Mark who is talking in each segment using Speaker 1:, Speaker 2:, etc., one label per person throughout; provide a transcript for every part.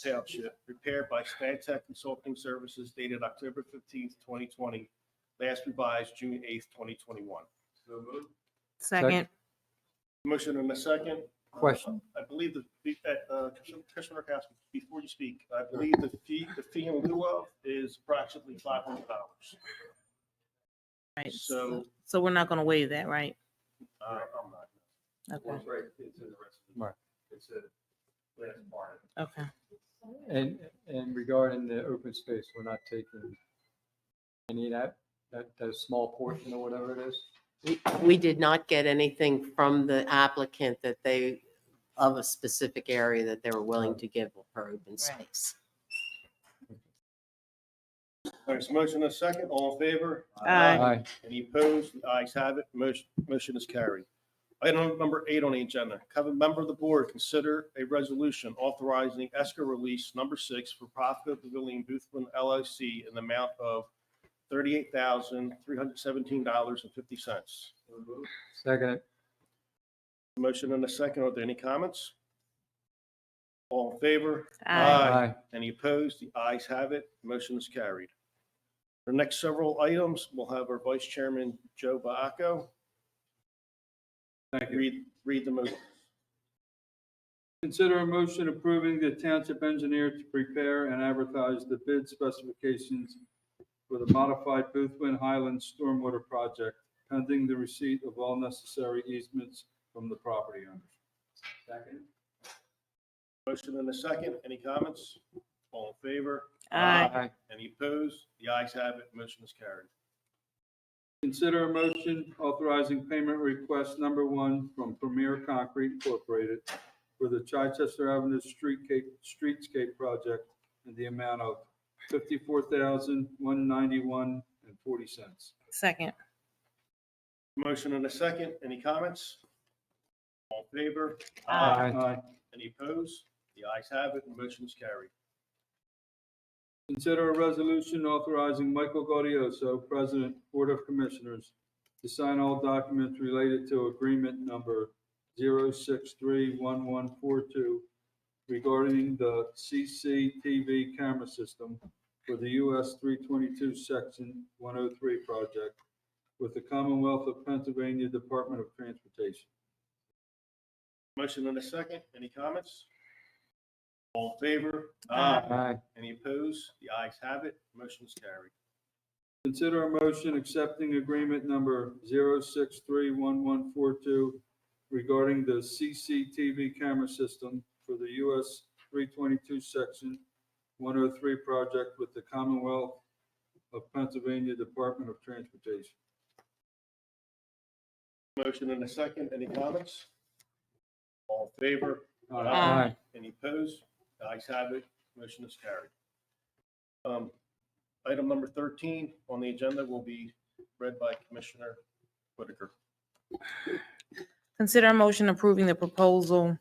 Speaker 1: sales ship prepared by Stantec Consulting Services dated October fifteenth, twenty twenty, last revised June eighth, twenty twenty-one.
Speaker 2: So moved.
Speaker 3: Second.
Speaker 1: Motion and a second.
Speaker 4: Question.
Speaker 1: I believe the, fee- uh, uh, Commissioner- Commissioner Rakowski, before you speak, I believe the fee, the fee in lieu of is approximately five hundred dollars.
Speaker 3: Right.
Speaker 1: So,
Speaker 3: So we're not gonna waive that, right?
Speaker 1: uh, I'm not.
Speaker 3: Okay,
Speaker 2: It's right, it's in the rest of the.
Speaker 4: Right.
Speaker 2: It's a last part.
Speaker 3: okay.
Speaker 4: And, and regarding the open space, we're not taking any of that, that, that small portion or whatever it is?
Speaker 5: We- We did not get anything from the applicant that they, of a specific area that they were willing to give for open space.
Speaker 1: There's a motion and a second. All in favor?
Speaker 3: Aye.
Speaker 4: Aye.
Speaker 1: Any opposed? The ayes have it. Motion, motion is carried. Item number eight on the agenda, have a member of the board consider a resolution authorizing escrow release number six for Profco Pavilion Boothman LLC in the amount of thirty-eight thousand, three hundred seventeen dollars and fifty cents.
Speaker 2: So moved.
Speaker 4: Second, it.
Speaker 1: Motion and a second. Are there any comments? All in favor?
Speaker 3: Aye.
Speaker 4: aye,
Speaker 1: Any opposed? The ayes have it. Motion is carried. The next several items, we'll have our Vice Chairman, Joe Baaco.
Speaker 6: Thank you.
Speaker 1: Read, read the motion.
Speaker 6: Consider a motion approving the township engineer to prepare and advertise the bid specifications for the modified Boothwin Highlands Stormwater Project pending the receipt of all necessary easements from the property owners. Second.
Speaker 1: Motion and a second. Any comments? All in favor?
Speaker 3: Aye.
Speaker 4: aye,
Speaker 1: Any opposed? The ayes have it. Motion is carried.
Speaker 6: Consider a motion authorizing payment request number one from Premier Concrete Incorporated for the Chichester Avenue Streetscape, Streetscape Project in the amount of fifty-four thousand, one ninety-one and forty cents.
Speaker 3: Second.
Speaker 1: Motion and a second. Any comments? All in favor?
Speaker 3: Aye.
Speaker 6: Aye.
Speaker 1: Any opposed? The ayes have it. Motion is carried.
Speaker 6: Consider a resolution authorizing Michael Gaudioso, President, Board of Commissioners, to sign all documents related to agreement number 0631142 regarding the CCTV camera system for the US 322 Section 103 project with the Commonwealth of Pennsylvania Department of Transportation.
Speaker 1: Motion and a second. Any comments? All in favor?
Speaker 3: Aye.
Speaker 4: aye,
Speaker 1: Any opposed? The ayes have it. Motion is carried.
Speaker 6: Consider a motion accepting agreement number 0631142 regarding the CCTV camera system for the US 322 Section 103 project with the Commonwealth of Pennsylvania Department of Transportation.
Speaker 1: Motion and a second. Any comments? All in favor?
Speaker 3: Aye.
Speaker 4: aye,
Speaker 1: Any opposed? The ayes have it. Motion is carried. Um, Item number 13 on the agenda will be read by Commissioner Whitaker.
Speaker 3: Consider a motion approving the proposal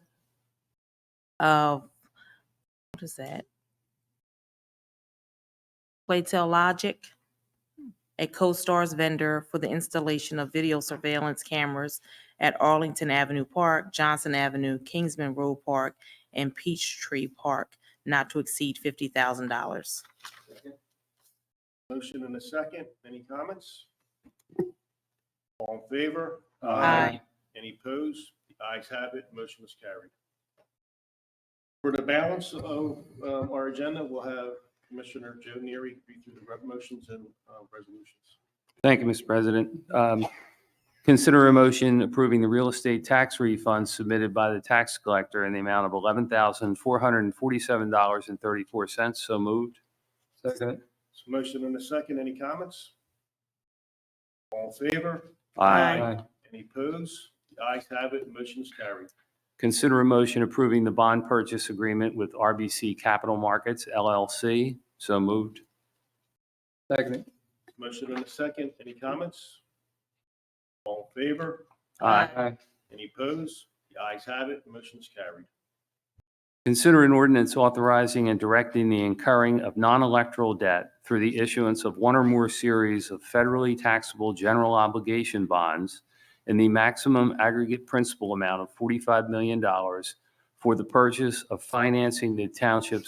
Speaker 3: of, what is that? Playtel Logic, a co-stars vendor for the installation of video surveillance cameras at Arlington Avenue Park, Johnson Avenue, Kingsman Road Park, and Peachtree Park, not to exceed fifty thousand dollars.
Speaker 1: Motion and a second. Any comments? All in favor?
Speaker 3: Aye.
Speaker 1: Any opposed? The ayes have it. Motion is carried. For the balance of um, our agenda, we'll have Commissioner Joe Neary read through the re- motions and uh, resolutions.
Speaker 7: Thank you, Mr. President. Um, Consider a motion approving the real estate tax refund submitted by the tax collector in the amount of $11,447.34. So moved.
Speaker 4: second, it.
Speaker 1: So motion and a second. Any comments? All in favor?
Speaker 3: Aye.
Speaker 4: aye,
Speaker 1: Any opposed? The ayes have it. Motion is carried.
Speaker 7: Consider a motion approving the bond purchase agreement with RBC Capital Markets LLC. So moved.
Speaker 4: second, it.
Speaker 1: Motion and a second. Any comments? All in favor?
Speaker 3: Aye.
Speaker 4: aye,
Speaker 1: Any opposed? The ayes have it. Motion is carried.
Speaker 7: Consider an ordinance authorizing and directing the incurring of non-electoral debt through the issuance of one or more series of federally taxable general obligation bonds in the maximum aggregate principal amount of $45 million for the purchase of financing the township's